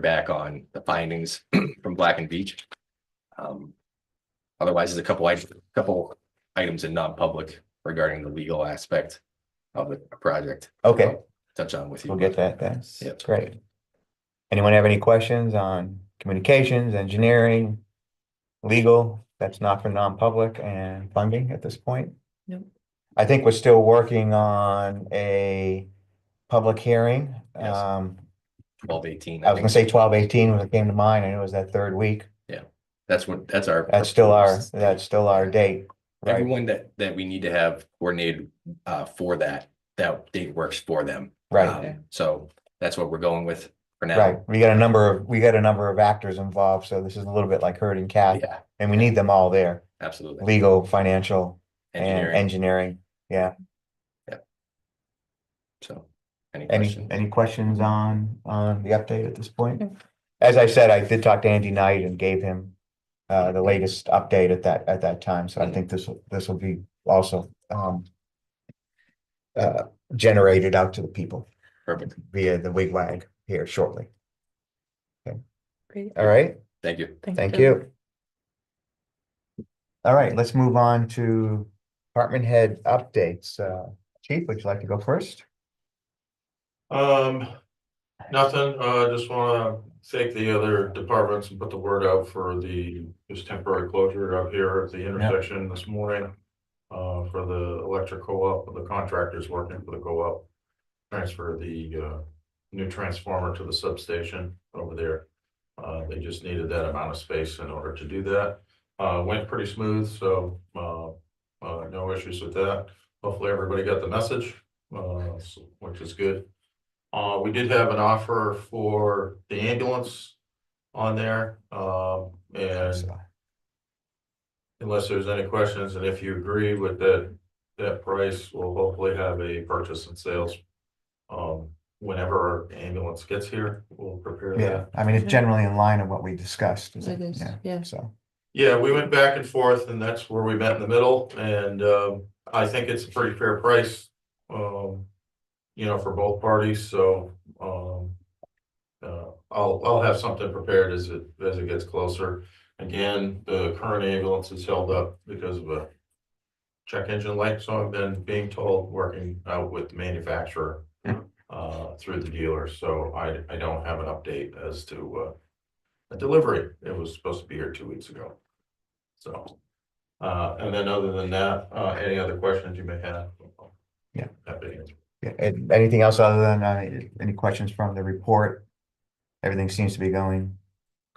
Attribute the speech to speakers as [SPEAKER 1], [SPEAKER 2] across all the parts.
[SPEAKER 1] back on the findings from Black and Beach. Um, Otherwise, there's a couple, items- couple items in non-public regarding the legal aspect of the project.
[SPEAKER 2] Okay,
[SPEAKER 1] Touch on with you.
[SPEAKER 2] we'll get that then.
[SPEAKER 1] Yep.
[SPEAKER 2] Great. Anyone have any questions on communications, engineering, legal? That's not for non-public and funding at this point?
[SPEAKER 3] Nope.
[SPEAKER 2] I think we're still working on a public hearing.
[SPEAKER 1] Yes.
[SPEAKER 2] Um,
[SPEAKER 1] Twelve eighteen.
[SPEAKER 2] I was gonna say twelve eighteen when it came to mind. I know it was that third week.
[SPEAKER 1] That's what, that's our.
[SPEAKER 2] That's still our,
[SPEAKER 1] proposed-
[SPEAKER 2] that's still our date, right?
[SPEAKER 1] Everyone that, that we need to have coordinated uh, for that, that date works for them.
[SPEAKER 2] Right,
[SPEAKER 1] Um, So that's what we're going with for
[SPEAKER 2] right.
[SPEAKER 1] now.
[SPEAKER 2] We got a number of, we got a number of actors involved, so this is a little bit like herding cats,
[SPEAKER 1] Yeah,
[SPEAKER 2] and we need them all there.
[SPEAKER 1] absolutely.
[SPEAKER 2] Legal, financial, and
[SPEAKER 1] Engineering,
[SPEAKER 2] engineering. Yeah.
[SPEAKER 1] so. Any
[SPEAKER 2] Any,
[SPEAKER 1] questions?
[SPEAKER 2] any questions on, on the update at this point?
[SPEAKER 3] No.
[SPEAKER 2] As I said, I did talk to Andy Knight and gave him uh, the latest update at that, at that time. So I think this, will this will be also um uh, generated out to the people
[SPEAKER 1] Perfect.
[SPEAKER 2] via the wig wag here shortly.
[SPEAKER 3] Great.
[SPEAKER 2] All right,
[SPEAKER 1] Thank you.
[SPEAKER 2] thank you. All right, let's move on to department head updates. Uh, Chief, would you like to go first?
[SPEAKER 4] Um, nothing, uh, just wanna thank the other departments and put the word out for the, this temporary closure up here at the intersection this morning. Uh, for the electric co-op, the contractors working for the co-op. Transfer the, uh, new transformer to the substation over there. Uh, they just needed that amount of space in order to do that. Uh, went pretty smooth, so, uh, uh, no issues with that. Hopefully, everybody got the message, uh, s- which is good. Uh, we did have an offer for the ambulance on there, um, and unless there's any questions, and if you agree with that, that price, we'll hopefully have a purchase and sales. Um, whenever our ambulance gets here, we'll prepare
[SPEAKER 2] Yeah,
[SPEAKER 4] that.
[SPEAKER 2] I mean, it's
[SPEAKER 3] Yeah.
[SPEAKER 2] generally in line of what we discussed.
[SPEAKER 3] It is, yeah.
[SPEAKER 2] So,
[SPEAKER 4] Yeah, we went back and forth and that's where we met in the middle and um I think it's a pretty fair price. Um, you know, for both parties, so um. Uh, I'll, I'll have something prepared as it, as it gets closer. Again, the current ambulance is held up because of a. Check engine light, so I've been being told, working out with the manufacturer. Uh, through the dealer, so I, I don't have an update as to uh. A delivery, it was supposed to be here two weeks ago. So, uh, and then other than that, uh, any other questions you may have?
[SPEAKER 2] Yeah.
[SPEAKER 4] Happy to answer.
[SPEAKER 2] yeah, and anything else other than, uh, any questions from the report? Everything seems to be going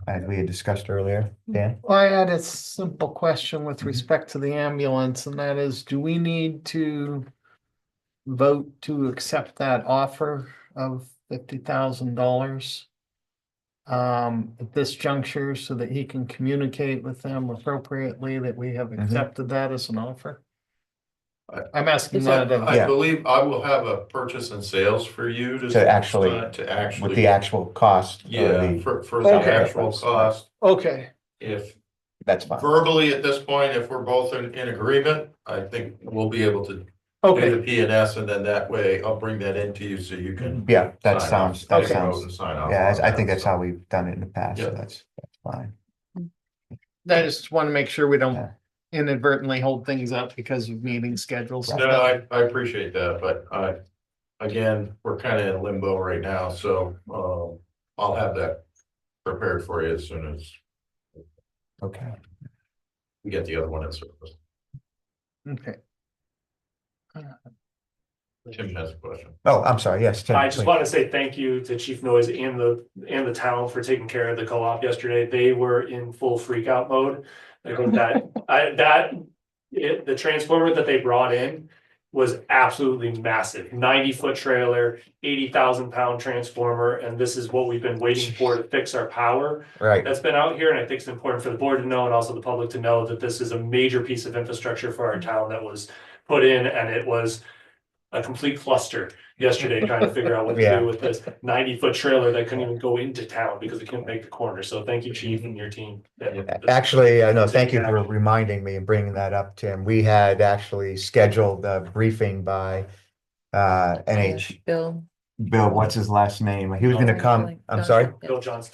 [SPEAKER 2] as we had discussed earlier, Dan?
[SPEAKER 5] Well, I had a simple question with
[SPEAKER 4] Mm-hmm.
[SPEAKER 2] Mhm.
[SPEAKER 5] respect to the ambulance, and that is, do we need to vote to accept that offer of fifty thousand dollars? Um, at this juncture, so that he can communicate with them appropriately that we have
[SPEAKER 4] Mm-hmm.
[SPEAKER 2] Mhm.
[SPEAKER 5] accepted that as an offer?
[SPEAKER 4] I-
[SPEAKER 5] I'm asking
[SPEAKER 3] Is
[SPEAKER 5] that,
[SPEAKER 4] I
[SPEAKER 5] of-
[SPEAKER 4] Uh, I believe I will have a purchase and sales for you to.
[SPEAKER 2] To actually-
[SPEAKER 4] To
[SPEAKER 3] Mm-hmm.
[SPEAKER 2] With the
[SPEAKER 4] actually,
[SPEAKER 2] actual cost? or
[SPEAKER 4] yeah,
[SPEAKER 2] the-
[SPEAKER 4] for, for the
[SPEAKER 5] Okay.
[SPEAKER 4] actual cost.
[SPEAKER 5] okay,
[SPEAKER 4] If
[SPEAKER 2] That's fine.
[SPEAKER 4] verbally at this point, if we're both in, in agreement, I think we'll be able to do
[SPEAKER 5] okay,
[SPEAKER 4] the P and S and then that way I'll bring that into you so you can.
[SPEAKER 2] Yeah,
[SPEAKER 4] sign
[SPEAKER 2] that
[SPEAKER 4] off.
[SPEAKER 2] sounds,
[SPEAKER 4] I'll
[SPEAKER 2] that
[SPEAKER 4] go
[SPEAKER 2] sounds,
[SPEAKER 4] and sign off
[SPEAKER 2] yeah,
[SPEAKER 4] on
[SPEAKER 2] I I think
[SPEAKER 4] that,
[SPEAKER 2] that's
[SPEAKER 4] so.
[SPEAKER 2] how we've done it in the past, so
[SPEAKER 4] Yeah.
[SPEAKER 2] that's, that's fine.
[SPEAKER 5] I just want to make sure we don't
[SPEAKER 2] Yeah.
[SPEAKER 5] inadvertently hold things up because of meeting schedules. and
[SPEAKER 4] No,
[SPEAKER 5] stuff.
[SPEAKER 4] I, I appreciate that, but I, again, we're kind of in limbo right now, so, um, I'll have that prepared for you as soon as
[SPEAKER 2] Okay,
[SPEAKER 4] we get the other one in service.
[SPEAKER 5] Okay.
[SPEAKER 4] Tim has a question.
[SPEAKER 2] oh, I'm sorry, yes. Tim,
[SPEAKER 6] I just
[SPEAKER 2] please.
[SPEAKER 6] want to say thank you to Chief Noise and the, and the town for taking care of the co-op yesterday. They were in full freak out mode. I think that, I, that, it, the transformer that they brought in was absolutely massive. Ninety foot trailer, eighty thousand pound transformer, and this is what we've been waiting for to fix our power
[SPEAKER 2] Right,
[SPEAKER 6] that's been out here, and I think it's important for the board to know and also the public to know that this is a major piece of infrastructure for our
[SPEAKER 2] Mm-hmm.
[SPEAKER 6] town that was put in, and it was a complete cluster yesterday trying to figure out what to
[SPEAKER 2] Yeah.
[SPEAKER 6] do with this ninety-foot trailer that couldn't even go into town because we couldn't make the corner. So thank you, chief, and your team.
[SPEAKER 2] Actually, uh, no, thank you for reminding me and bringing that up, Tim. We had actually scheduled a briefing by uh, NH,
[SPEAKER 3] Bill.
[SPEAKER 2] Bill, what's his last name? He was gonna come, I'm sorry?
[SPEAKER 6] Bill Johnston.